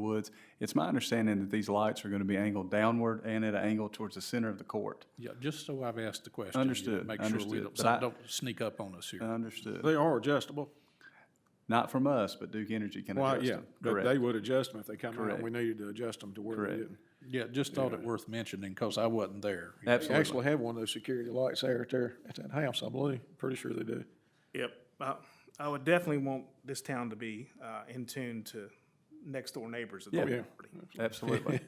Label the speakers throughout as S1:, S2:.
S1: Woods. It's my understanding that these lights are going to be angled downward and at an angle towards the center of the court.
S2: Yeah, just so I've asked the question. you know,
S1: Understood,
S2: Make sure we
S1: understood,
S2: don't,
S1: but I- Uh,
S2: don't sneak up on us here.
S1: Understood.
S3: They are adjustable.
S1: Not from us, but Duke Energy can
S3: Well,
S1: adjust
S3: yeah,
S1: them.
S3: but
S1: Correct.
S3: they would adjust them if they come out
S1: Correct.
S3: and we needed to adjust them to where they
S1: Correct.
S3: didn't.
S2: Yeah, just thought it worth mentioning because I wasn't there.
S3: They
S1: Absolutely.
S3: actually have one of those security lights there at their, at that house, I believe. Pretty sure they do.
S4: Yep, I, I would definitely want this town to be, uh, in tune to next door neighbors of the
S1: Yeah.
S4: property.
S1: Absolutely.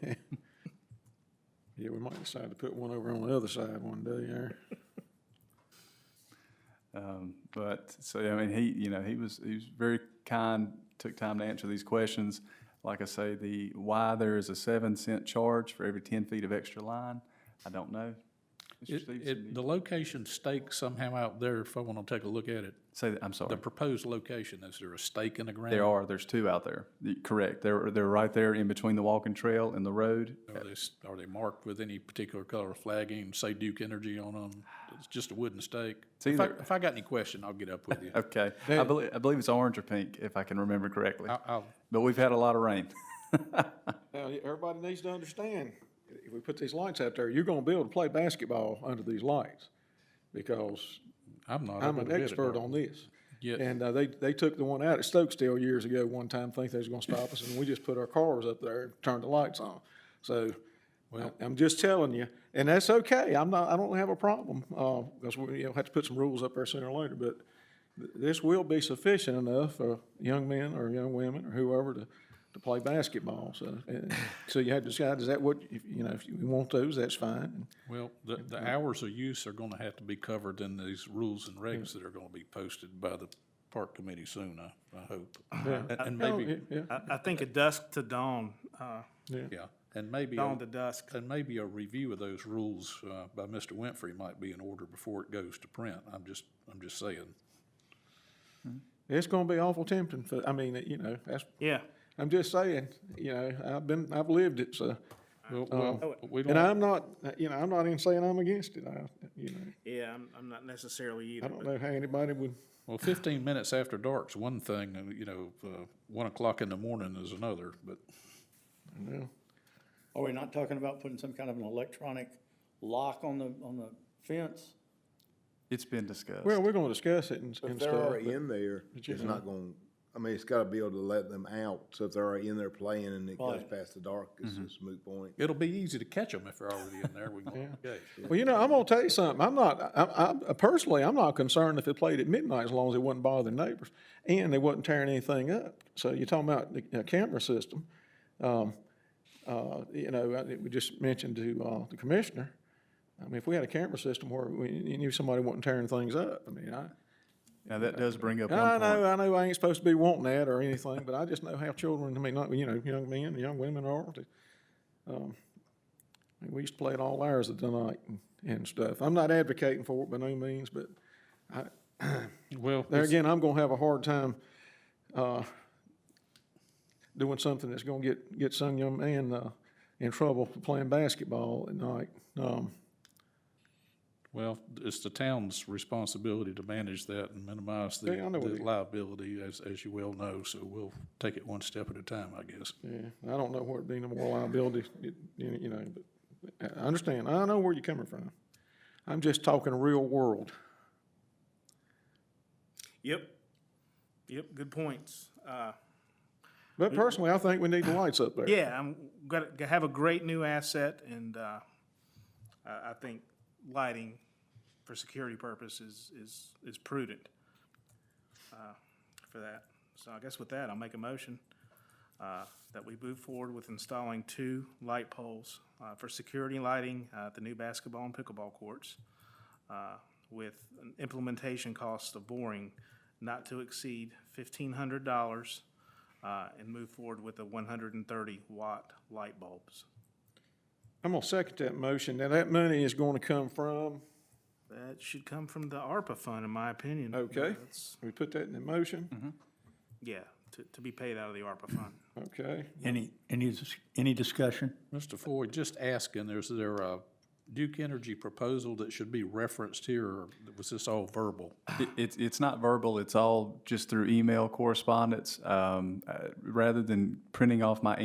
S3: Yeah, we might decide to put one over on the other side one day there.
S1: Um, But, so, I mean, he, you know, he was, he was very kind, took time to answer these questions. Like I say, the, why there is a seven cent charge for every ten feet of extra line, I don't know. Mr.
S2: It,
S1: Stevenson,
S2: it, the location stake somehow out there, if I want to take a look at it,
S1: Say that, I'm sorry.
S2: the proposed location, is there a stake in the ground?
S1: There are, there's two out there. Y- Correct. They're, they're right there in between the walking trail and the road.
S2: Are they, s- are they marked with any particular color flagging, say Duke Energy on them? It's just a wooden stake?
S1: It's
S2: If I,
S1: either-
S2: if I got any question, I'll get up with you.
S1: Okay. I believe, I believe it's orange or pink, if I can remember correctly.
S2: I- I'll,
S1: But we've had a lot of rain.
S3: Now, y- everybody needs to understand, if we put these lights out there, you're gonna be able to play basketball under these lights. Because
S2: I'm not.
S3: I'm
S2: able
S3: an
S2: to get it,
S3: expert
S2: Darrell.
S3: on this.
S2: Yeah.
S3: And uh, they, they took the one out at Stokesdale years ago one time, think they was gonna stop us, and we just put our cars up there and turned the lights on. So, I- I'm just telling you, and that's okay, I'm not, I don't have a problem, uh, because we, you know, have to put some rules up there sooner or later, but th- this will be sufficient enough for young men or young women or whoever to, to play basketball, so. and- So you have to decide, is that what, if, you know, if you want those, that's fine.
S2: Well, the,
S3: Mm-hmm.
S2: the hours of use are gonna have to be covered in these rules and regs that are gonna be posted by the park committee soon, I, I hope. And- And maybe,
S3: Oh, Yeah,
S4: I, I think a dusk to dawn, uh,
S2: yeah, and maybe,
S4: dawn
S2: a-
S4: to dusk.
S2: and maybe a review of those rules, uh, by Mr. Winfrey might be in order before it goes to print. I'm just, I'm just saying.
S3: It's gonna be awful tempting for, I mean, you know, that's,
S4: Yeah,
S3: I'm just saying, you know, I've been, I've lived it, so,
S2: Well, well, we
S3: Um, oh, and
S2: don't,
S3: I'm not, you know, I'm not even saying I'm against it, I, you know,
S4: yeah, I'm, I'm not necessarily
S3: I
S4: either,
S3: don't
S4: but
S3: know how anybody would,
S2: well, fifteen minutes after dark's one thing, and, you know, uh, one o'clock in the morning is another, but
S3: you know.
S5: Are we not talking about putting some kind of an electronic lock on the, on the fence?
S1: It's been discussed.
S3: Well, we're gonna discuss it and,
S6: If
S3: and
S6: they're
S3: stuff,
S6: already in there, it's not going, I mean, it's gotta be able to let them out, so if they're already in there playing and it goes
S5: Right.
S6: past the dark, it's just a moot point.
S2: it'll be easy to catch them if they're already in there. We can, okay.
S3: but- well, you know, I'm gonna tell you something, I'm not, I, I, personally, I'm not concerned if it played at midnight as long as it wasn't bothering neighbors, and they wasn't tearing anything up, so you're talking about the, uh, camera system. Um, uh, you know, I- we just mentioned to, uh, the commissioner, I mean, if we had a camera system where we, you knew somebody wasn't tearing things up, I mean, I,
S1: Now, that does bring up
S3: I
S1: one
S3: know,
S1: point.
S3: I know I ain't supposed to be wanting that or anything, but I just know how children, I mean, not, you know, young men, and young women are. they, um, I mean, We used to play it all hours of the night and, and stuff. I'm not advocating for it by no means, but
S2: Well,
S3: there again, I'm gonna have a hard time, uh, doing something that's gonna get, get some young man, uh, in trouble for playing basketball at night. Um,
S2: Well, it's the town's responsibility to manage that and minimize the
S3: Yeah, I know what
S2: the
S3: you-
S2: liability, as, as you well know, so we'll take it one step at a time, I guess.
S3: yeah, I don't know where it'd be no more liability, it- you you know, but I I understand. I know where you're coming from. I'm just talking real world.
S4: yep, yep, good points. Uh,
S3: But personally, I think we need the lights up there.
S4: yeah, I'm gonna g- have a great new asset and, uh, I, I think lighting for security purposes is, is prudent, uh, for that. So I guess with that, I'll make a motion, uh, that we move forward with installing two light poles, uh, for security lighting, uh, at the new basketball and pickleball courts, uh, with an implementation cost of boring not to exceed fifteen hundred dollars, uh, and move forward with the one hundred and thirty watt light bulbs.
S3: I'm gonna second that motion. Now, that money is gonna come from,
S4: That should come from the ARPA fund, in my opinion.
S3: Okay.
S4: That's-
S3: we put that in the motion,
S4: Yeah, to, to be paid out of the ARPA fund.
S3: okay?
S5: Any, any, dis- any discussion?
S2: Mr. Floyd, just asking, is there a Duke Energy proposal that should be referenced here, or was this all verbal?
S1: It- It's, it's not verbal, it's all just through email correspondence. Um, uh, Rather than printing off my